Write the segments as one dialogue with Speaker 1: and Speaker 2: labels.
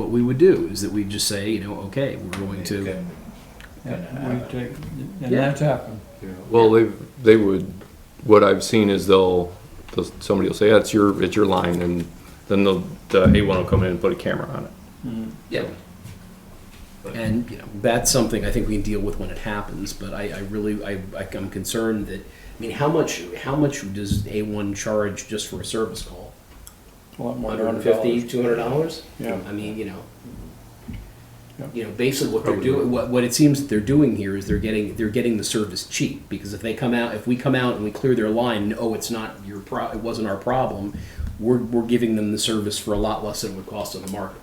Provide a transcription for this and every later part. Speaker 1: what we would do is that we just say, you know, okay, we're going to.
Speaker 2: Couldn't- couldn't
Speaker 3: Yeah,
Speaker 2: have
Speaker 3: we
Speaker 2: it.
Speaker 3: take, and
Speaker 1: Yeah.
Speaker 3: that's happened.
Speaker 4: Well, they, they would, what I've seen is they'll, they'll- somebody will say, yeah, it's your, it's your line, and then the, the A1 will come in and put a camera on it.
Speaker 1: Yeah. And you know, that's something I think we can deal with when it happens. But I, I really I, I, I'm concerned that I mean, how much how much does A one charge just for a service call?
Speaker 3: A lot more than
Speaker 1: 150 200 dollars.
Speaker 3: Yeah.
Speaker 1: I mean, you know.
Speaker 3: Yeah.
Speaker 1: You know, basically what they're doing, what, what it seems that they're doing here is they're getting they're getting the service cheap because if they come out, if we come out and we clear their line, oh, it's not your pro, it wasn't our problem. We're, we're giving them the service for a lot less than it would cost on the market.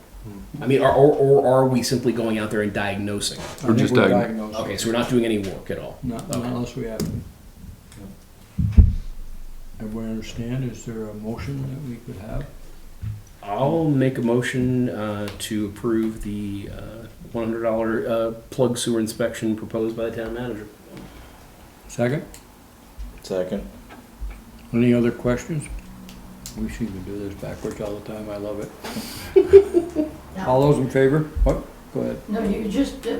Speaker 1: I mean, are, or, or are we simply going out there and diagnosing?
Speaker 3: I
Speaker 4: We're
Speaker 3: think
Speaker 4: just
Speaker 3: we
Speaker 4: diag-
Speaker 3: diagnosed it.
Speaker 1: Okay, so we're not doing any work at all.
Speaker 3: Not not
Speaker 1: Okay.
Speaker 3: unless we have. it. Everybody understand, is there a motion that we could have?
Speaker 1: I'll make a motion uh, to approve the uh, $100 uh, plug sewer inspection proposed by the town manager.
Speaker 3: Second,
Speaker 2: Second.
Speaker 3: any other questions? We seem to do this backwards all the time, I love it. All those in favor? What? Go ahead.
Speaker 5: No, you just, uh,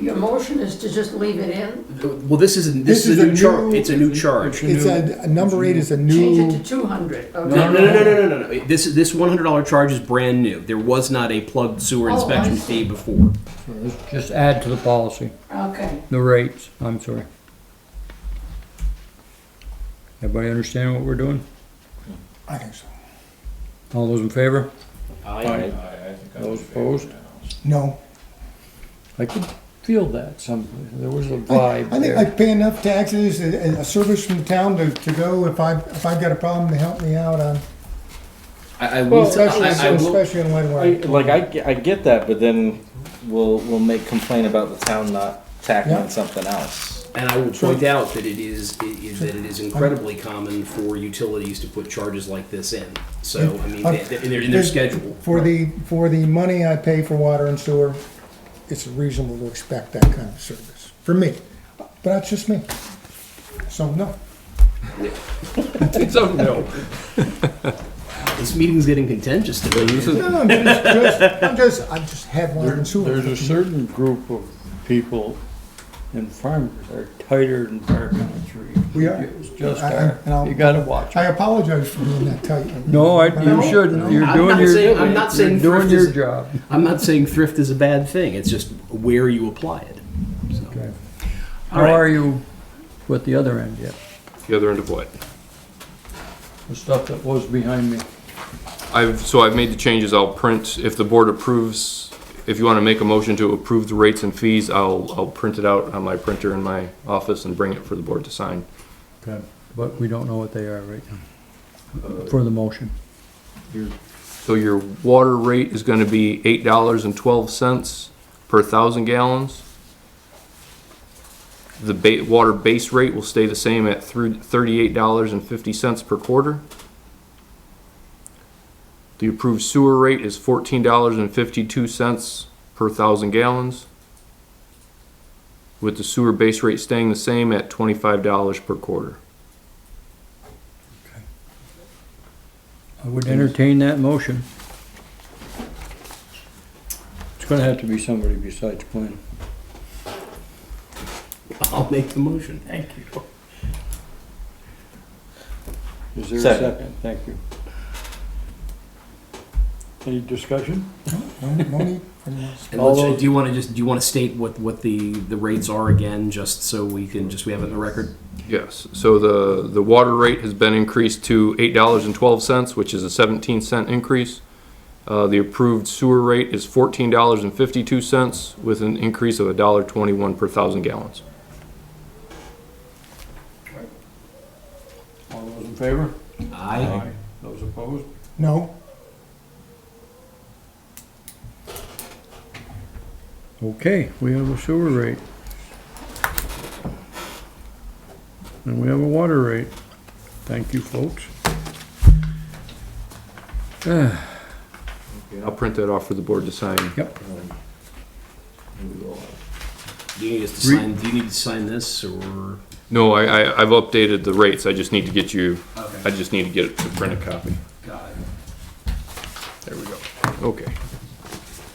Speaker 5: your motion is to just leave it in,
Speaker 1: Well, this is this, is, a new charge. It's a new charge.
Speaker 6: It's a, number eight is a
Speaker 5: change it to
Speaker 6: new,
Speaker 5: two hundred, okay?
Speaker 1: No, no, no, no, no, no, no, no. This this one hundred dollar charge is brand new. There was not a plugged sewer
Speaker 5: Oh, I
Speaker 1: inspection
Speaker 5: see.
Speaker 1: fee before.
Speaker 3: So let's Just add to the policy,
Speaker 5: Okay,
Speaker 3: the rates, I'm sorry. Everybody understand what we're doing?
Speaker 6: I think so.
Speaker 3: All those in favor?
Speaker 2: I- I think I
Speaker 3: Those
Speaker 2: was in favor
Speaker 3: opposed?
Speaker 2: now.
Speaker 6: No,
Speaker 3: I could feel that some, there was a
Speaker 6: I
Speaker 3: vibe
Speaker 6: think I
Speaker 3: there.
Speaker 6: pay enough taxes and, and a service from the town to, to go if I, if I've got a problem to help me out on,
Speaker 1: I, I will.
Speaker 6: especially,
Speaker 1: I, I will
Speaker 6: especially in Leadwell.
Speaker 2: I, like I, ge- I get that, but then we'll we'll make complaint about the town not tackling
Speaker 6: Yeah.
Speaker 2: something else.
Speaker 1: and I will point out that it is, it is that it is incredibly common for utilities to put charges like this in. So I mean, they, they, in, their, in their schedule.
Speaker 6: Uh, For the, for the money I pay for water and sewer, it's reasonable to expect that kind of service, for me. But that's just me. So, no.
Speaker 4: So, no,
Speaker 1: This meeting's getting contentious today.
Speaker 4: this is,
Speaker 6: No, I'm just, just, I'm just, I just have water and sewer.
Speaker 3: There's a certain group of people and farmers that are tighter than fire coming through.
Speaker 6: We are.
Speaker 3: It's just,
Speaker 6: I- I-
Speaker 3: our-
Speaker 6: and I'll-
Speaker 3: you gotta watch.
Speaker 6: I apologize for doing that, tell you.
Speaker 3: No, I,
Speaker 6: No,
Speaker 3: you shouldn't, you're
Speaker 1: I'm
Speaker 3: doing
Speaker 1: not
Speaker 3: your,
Speaker 1: saying- I'm not
Speaker 3: you're
Speaker 1: saying
Speaker 3: doing
Speaker 1: thrift
Speaker 3: your
Speaker 1: is-
Speaker 3: job.
Speaker 1: I'm not saying thrift is a bad thing. It's just where you apply it. So.
Speaker 3: Okay.
Speaker 1: All
Speaker 3: How
Speaker 1: right.
Speaker 3: are you with the other end yet?
Speaker 4: the other end of what?
Speaker 3: The stuff that was behind me.
Speaker 4: I've, so I've made the changes, I'll print, if the board approves, if you wanna make a motion to approve the rates and fees, I'll, I'll print it out on my printer in my office and bring it for the board to sign.
Speaker 3: But we don't know what they are right now, for the motion.
Speaker 4: So your water rate is gonna be eight dollars and twelve cents per thousand gallons. The ba- water base rate will stay the same at through thirty-eight dollars and fifty cents per quarter. The approved sewer rate is fourteen dollars and fifty-two cents per thousand gallons. With the sewer base rate staying the same at twenty-five dollars per quarter.
Speaker 3: I would entertain that motion. It's gonna have to be somebody besides Quinn.
Speaker 1: I'll make the motion.
Speaker 3: Thank you. Is there a
Speaker 2: Second.
Speaker 3: second? Thank you. Any discussion?
Speaker 6: No, no need for anyone.
Speaker 1: And
Speaker 3: All
Speaker 1: let's-
Speaker 3: those-
Speaker 1: do you want to just do you want to state what what the the rates are again, just so we can just we have it in the record?
Speaker 4: Yes, so the, the water rate has been increased to eight dollars and twelve cents, which is a seventeen cent increase. Uh, the approved sewer rate is fourteen dollars and fifty-two cents with an increase of a dollar twenty-one per thousand gallons.
Speaker 3: All those in favor?
Speaker 1: I
Speaker 3: Those opposed?
Speaker 6: No,
Speaker 3: Okay, we have a sewer rate. And we have a water rate. Thank you, folks. Ah,
Speaker 4: I'll print that off for the board to sign.
Speaker 3: Yep,
Speaker 1: do you need us to
Speaker 3: Re-
Speaker 1: sign? Do you need to sign this or?
Speaker 4: No, I, I, I've updated the rates, I just need to get you,
Speaker 1: Okay.
Speaker 4: I just need to get a printed copy.
Speaker 1: God.
Speaker 4: There we go. Okay.